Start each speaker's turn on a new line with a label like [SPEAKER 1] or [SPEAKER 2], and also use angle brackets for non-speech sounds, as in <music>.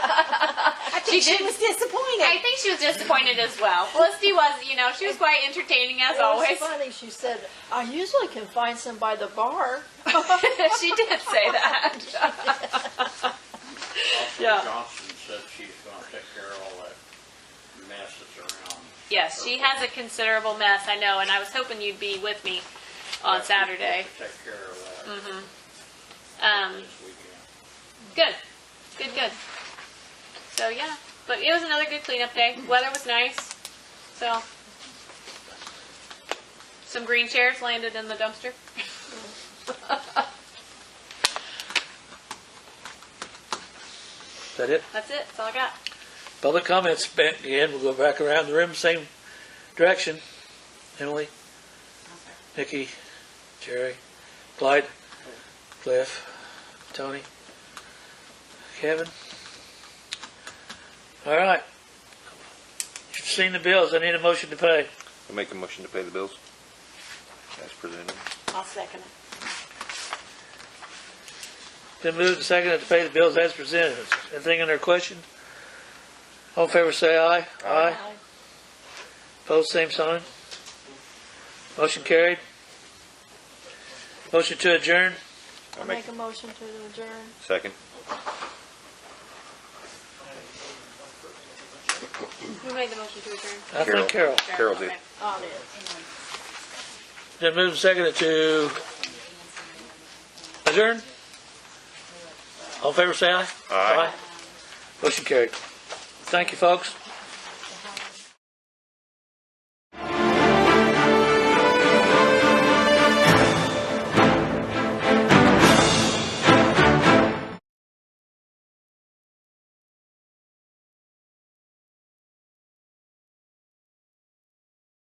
[SPEAKER 1] think
[SPEAKER 2] she
[SPEAKER 1] she
[SPEAKER 2] did-
[SPEAKER 1] was disappointed.
[SPEAKER 2] I think she was disappointed as well. Felicity was, you know, she was quite entertaining as
[SPEAKER 3] It was
[SPEAKER 2] always.
[SPEAKER 3] funny. She said, "I usually can find some by the bar."
[SPEAKER 2] <laughs> she did say that.
[SPEAKER 4] Also,
[SPEAKER 2] Yeah.
[SPEAKER 4] Johnson said she's gonna take care of all that mess that's around.
[SPEAKER 2] Yes, she has a considerable mess, I know, and I was hoping you'd be with me on
[SPEAKER 4] That's who's
[SPEAKER 2] Saturday.
[SPEAKER 4] supposed to Take care of that
[SPEAKER 2] Um,
[SPEAKER 4] this weekend.
[SPEAKER 2] good, good, good. So yeah, but it was another good cleanup day. Weather was nice, so some green chairs landed in the dumpster.
[SPEAKER 5] Is that it?
[SPEAKER 2] That's it. That's all I got.
[SPEAKER 5] Public comments back again. We'll go back around the room, same direction. Emily, Nikki, Jerry, Clyde, Cliff, Tony, Kevin. All right. You've seen the bills. I need a motion to pay.
[SPEAKER 6] I make a motion to pay the bills as presented.
[SPEAKER 1] I'll second it.
[SPEAKER 5] Been moved and seconded to pay the bills as presented. Anything under question? All in favor, say aye. Aye. Pose same sign. Motion carried. Motion to adjourn.
[SPEAKER 3] I make a motion to adjourn.
[SPEAKER 6] Second.
[SPEAKER 2] Who made the motion to adjourn?
[SPEAKER 5] I think Carol.
[SPEAKER 6] Carol did.
[SPEAKER 2] Okay.
[SPEAKER 3] On it.
[SPEAKER 5] Been moved and seconded to adjourn. All in favor, say aye.
[SPEAKER 6] Aye.
[SPEAKER 5] Motion carried. Thank you, folks.